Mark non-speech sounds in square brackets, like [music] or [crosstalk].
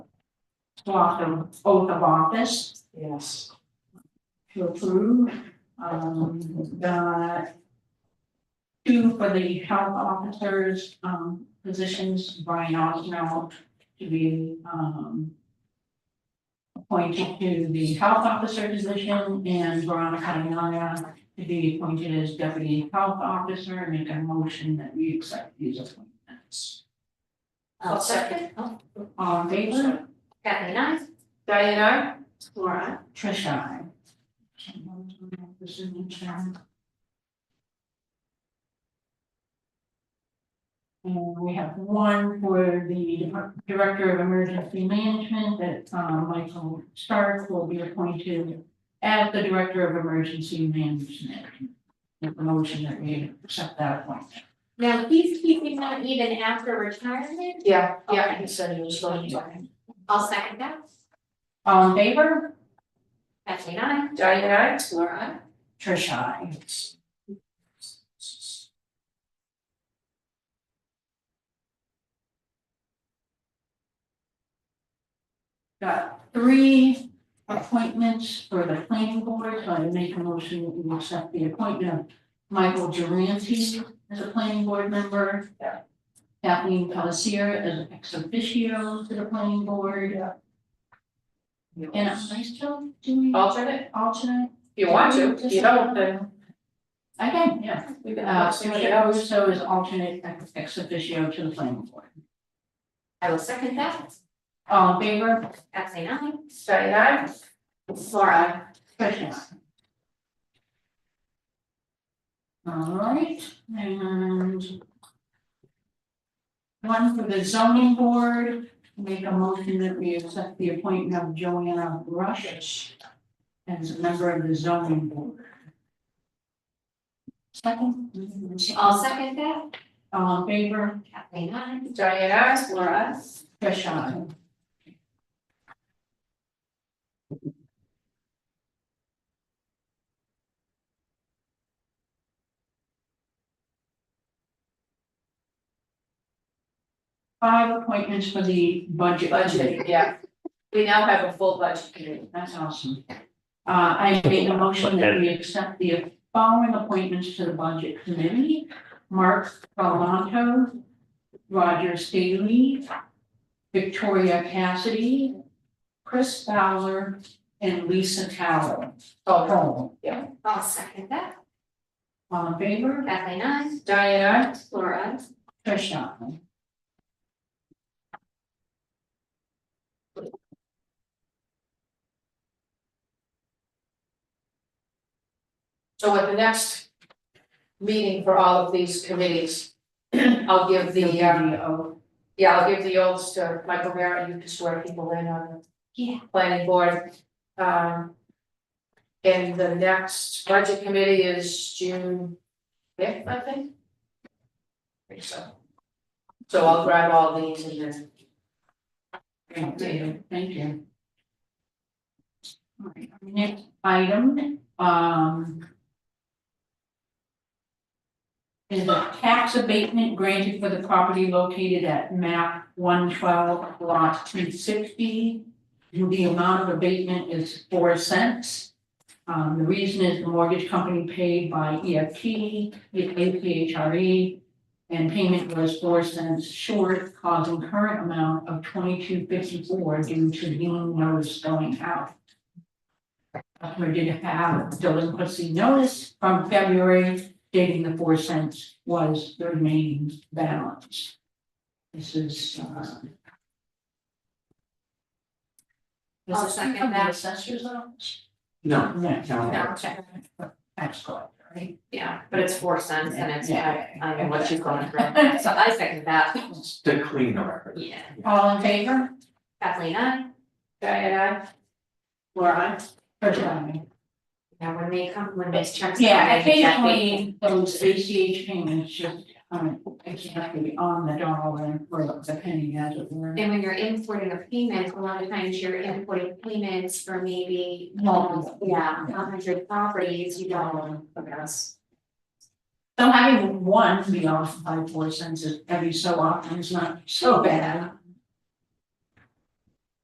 off the oath of office Yes. to approve, um, got two for the health officers, um, positions, Brian Osmell to be, um, appointed to the health officer position and Veronica Naya to be appointed as deputy health officer, and make a motion that we accept these appointments. I'll second. Oh, All in favor? Kathleen, I. Diane, I? Laura. Tricia, I. Can one of you have the signature? And we have one for the Director of Emergency Management that um, Michael Stark will be appointed as the Director of Emergency Management. Make the motion that we accept that appointment. Now, he's keeping them even after retirement. Yeah, yeah, yeah. he said he was going to. I'll second that. All in favor? Kathleen, I. Diane, I? Laura. Trish, I. Got three appointments for the planning board, so I make a motion that we accept the appointment of Michael Duranty as a planning board member. Yeah. Kathleen Palacier as an ex officio to the planning board, and I still do Alternate, alternate. if you want to, if you don't, then I can, yeah. we can Uh, have somebody Commissioner else. Russo is alternate ex- ex officio to the planning board. I will second that. All in favor? Kathleen, I. Diane, I? Laura. Question. All right, and one for the zoning board, make a motion that we accept the appointment of Joanna Rush as a member of the zoning board. Second? I'll second that. All in favor? Kathleen, I. Diane, I? Laura. Trish, aye. Five appointments for the budget. Budget, yeah. We now have a full budget committee. That's awesome. Uh, I make a motion that we accept the following appointments to the budget committee. Mark Galanto, Roger Staley, Victoria Cassidy, Chris Fowler, and Lisa Tower. Oh, All I'll second that. in favor? Kathleen, I. Diane, Laura. Trish, aye. so at the next meeting for all of these committees, [clears throat] I'll give the, um, Yeah, I'll give the oaths to Michael Merritt, you can swear people in on Yeah. the planning board. Um. And the next budget committee is June fifth, I think. I think so. So I'll grab all these and then. Thank you, thank you. All right, our next item, um. Is a tax abatement granted for the property located at map one twelve lot two sixty. The amount of abatement is four cents. Um, the reason is the mortgage company paid by E EFT, APHRE, E and payment was four cents short, causing current amount of twenty-two fifty-four due to lien notice going out. Customer did have delinquency notice from February dating the four cents was the remaining balance. This is, uh. Does I'll second this come from the that. assessor's office? No, No, no, No, check. tax collector, right? Yeah, but it's four cents and it's, Yeah. I don't know what she's going through. So I second that. it's to clean the record. Yeah. All in favor? Kathleen, I. Diana, Laura? First time. Yeah, when they come, when those checks. come Yeah, in, exactly. occasionally those ACH payments just, um, exactly on the dollar or the penny as it were. And when you're importing a payment, a lot of times you're importing payments for maybe. Multiple. Yeah, a hundred properties, you don't. Dollar. Yes. So having one be off by four cents is every so often is not so bad.